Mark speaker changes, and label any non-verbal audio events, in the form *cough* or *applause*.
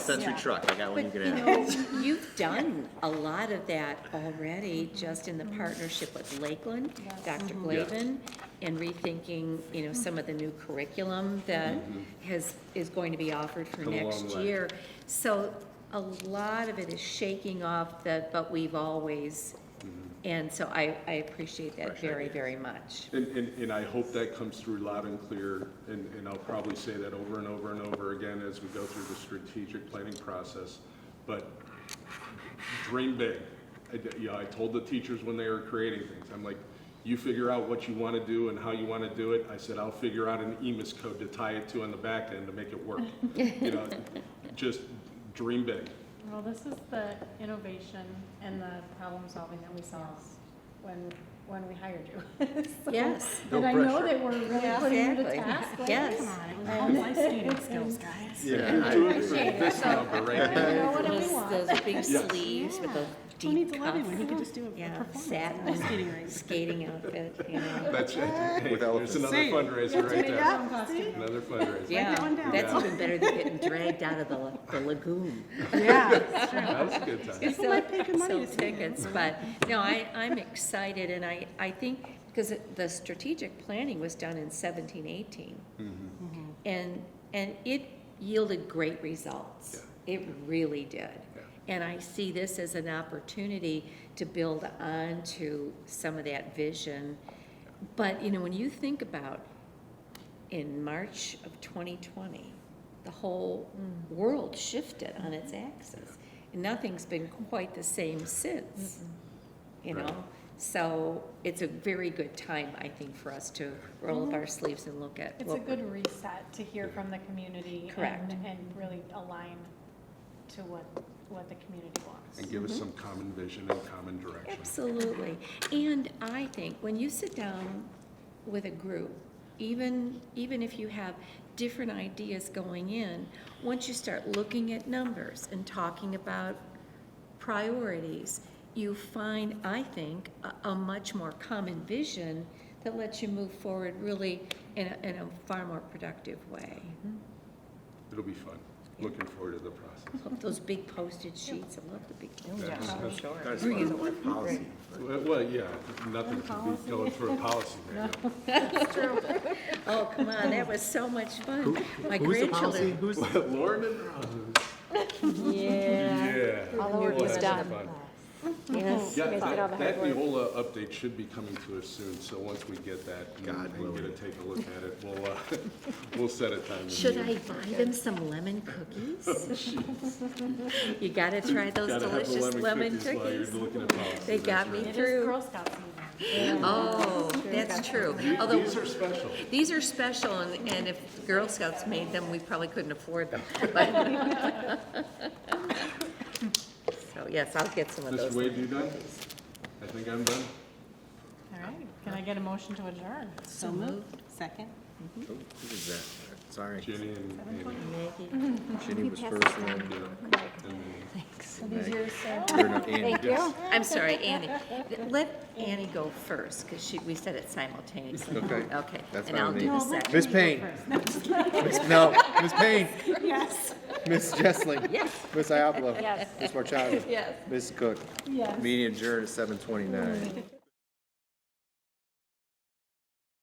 Speaker 1: Sensory
Speaker 2: Yeah.
Speaker 1: truck, I got one you
Speaker 3: But
Speaker 1: can
Speaker 3: you
Speaker 1: have.
Speaker 3: know, you've done a lot of that already, just in the partnership with Lakeland, Dr.
Speaker 4: Mm-hmm.
Speaker 3: Glavin, and rethinking, you know, some of the new curriculum that has, is going to be offered for
Speaker 4: Mm-hmm. Come a
Speaker 3: next
Speaker 4: long way.
Speaker 3: year. So a lot of it is shaking off the, but we've always,
Speaker 4: Mm-hmm.
Speaker 3: and so I, I appreciate that
Speaker 1: Fresh
Speaker 3: very,
Speaker 1: ideas.
Speaker 3: very much.
Speaker 4: And, and, and I hope that comes through loud and clear, and, and I'll probably say that over and over and over again as we go through the strategic planning process. But dream big. I, d- you know, I told the teachers when they were creating things, I'm like, you figure out what you want to do and how you want to do it. I said, I'll figure out an EMIS code to tie it to on the back end to make it work. You know, just dream big.
Speaker 2: Well, this is the innovation and the problem solving that we saw when, when we hired you. *laughs* So-
Speaker 3: Yes.
Speaker 1: No
Speaker 2: And I know
Speaker 1: pressure.
Speaker 2: that we're really putting you to
Speaker 3: Exactly.
Speaker 2: task. like,
Speaker 3: Yes.
Speaker 2: come on.
Speaker 5: It was all life saving
Speaker 2: *laughs*
Speaker 5: skills, guys.
Speaker 1: Yeah, I-
Speaker 4: Do it for
Speaker 2: appreciate
Speaker 4: this number right
Speaker 2: We
Speaker 4: here.
Speaker 2: know what we
Speaker 3: Those,
Speaker 2: want.
Speaker 3: those big
Speaker 4: Yes.
Speaker 3: sleeves with those
Speaker 5: Who needs
Speaker 3: deep
Speaker 5: a
Speaker 3: cuffs.
Speaker 5: living when he could just do a- a
Speaker 3: Yeah,
Speaker 5: performance?
Speaker 3: satin
Speaker 5: Skating rings.
Speaker 3: skating outfit, you know.
Speaker 4: That's it. Hey,
Speaker 1: With elephants.
Speaker 4: *laughs* There's another fundraiser right there.
Speaker 5: Yeah, see?
Speaker 4: Another
Speaker 3: *laughs*
Speaker 4: fundraiser.
Speaker 3: Yeah,
Speaker 5: that one down.
Speaker 3: that's
Speaker 4: Yeah.
Speaker 5: *laughs*
Speaker 3: even better than getting dragged out of the, la- the lagoon.
Speaker 5: Yeah, it's true.
Speaker 4: That was a good time.
Speaker 3: So-
Speaker 5: might pay good money
Speaker 3: so
Speaker 5: to see you.
Speaker 3: tickets, but, no, I, I'm excited, and I, I think, because the strategic planning was done in seventeen, eighteen.
Speaker 5: Mm-hmm.
Speaker 3: And, and it yielded great results. It really did. And I see this as an opportunity to build on to some of that vision. But, you know, when you think about in March of 2020, the whole world shifted on its axis. And nothing's been quite the same since, you
Speaker 4: Right.
Speaker 3: know? So it's a very good time, I think, for us to roll up our sleeves and look at.
Speaker 2: Mm-hmm. It's a
Speaker 3: what we're-
Speaker 2: good reset to hear from the community. and-
Speaker 3: Correct.
Speaker 2: And really align to what, what the community wants.
Speaker 4: And give us some common vision and common direction.
Speaker 3: Absolutely. And I think when you sit down with a group, even, even if you have different ideas going in, once you start looking at numbers and talking about priorities, you find, I think, a, a much more common vision that lets you move forward really in a, in a far more productive way.
Speaker 4: It'll be fun. Looking forward to the process.
Speaker 3: Hope Those big postage sheets, I love the big postage.
Speaker 4: Yeah.
Speaker 1: That's fine. Policy.
Speaker 4: Well, well, yeah, nothing can be going through a policy manual.
Speaker 3: Oh, come on, that was so much fun.
Speaker 1: Who's the
Speaker 3: My grandchildren
Speaker 1: policy? Who's?
Speaker 4: *laughs* Lauren and Ron. Yeah.
Speaker 3: All the work
Speaker 4: Boy,
Speaker 3: was
Speaker 4: that's
Speaker 3: done.
Speaker 4: fun.
Speaker 3: Yes.
Speaker 4: Yeah, that, that Neola update should be coming to us soon, so once we get that and-
Speaker 1: God
Speaker 4: and get
Speaker 1: willing.
Speaker 4: a take a look at it, we'll, uh, *laughs* we'll set a time. to
Speaker 3: Should I
Speaker 4: meet.
Speaker 3: buy them some lemon cookies? *laughs* You gotta try those
Speaker 4: Gotta have the
Speaker 3: delicious lemon
Speaker 4: While you're
Speaker 3: cookies.
Speaker 4: looking at policy.
Speaker 3: They
Speaker 4: that's
Speaker 3: got
Speaker 4: right.
Speaker 3: me
Speaker 2: It is
Speaker 3: through.
Speaker 2: Girl Scout season.
Speaker 3: Oh, that's true. Although,
Speaker 4: These are special.
Speaker 3: these are special, and, and if Girl Scouts made them, we probably couldn't afford *laughs* them. So, yes, I'll get some of
Speaker 4: Mr.
Speaker 3: those.
Speaker 4: Wade, you done? I think I'm done.
Speaker 2: All right, can I get a motion to adjourn?
Speaker 5: So moved. Second.
Speaker 1: Oh, Who was that? Sorry.
Speaker 4: Jenny and Amy.
Speaker 3: Maggie,
Speaker 1: Ginny was first and then.
Speaker 4: 음.
Speaker 1: Thanks. Or no, Andy. Yes.
Speaker 3: I'm sorry, Annie. Let Annie go first, because she, we said it simultaneously.
Speaker 1: Okay.
Speaker 3: Okay,
Speaker 1: That's
Speaker 3: and
Speaker 1: fine
Speaker 3: I'll
Speaker 1: with
Speaker 3: do
Speaker 1: me.
Speaker 3: the second.
Speaker 1: Miss Payne. Miss- No, Miss Payne.
Speaker 5: Yes.
Speaker 1: Miss Jessling.
Speaker 3: Yes.
Speaker 1: Miss Iapolo. Yes. Miss Marchaga.
Speaker 3: Yes.
Speaker 1: Miss Cook.
Speaker 2: Yes.
Speaker 1: Meeting adjourned at seven twenty-nine.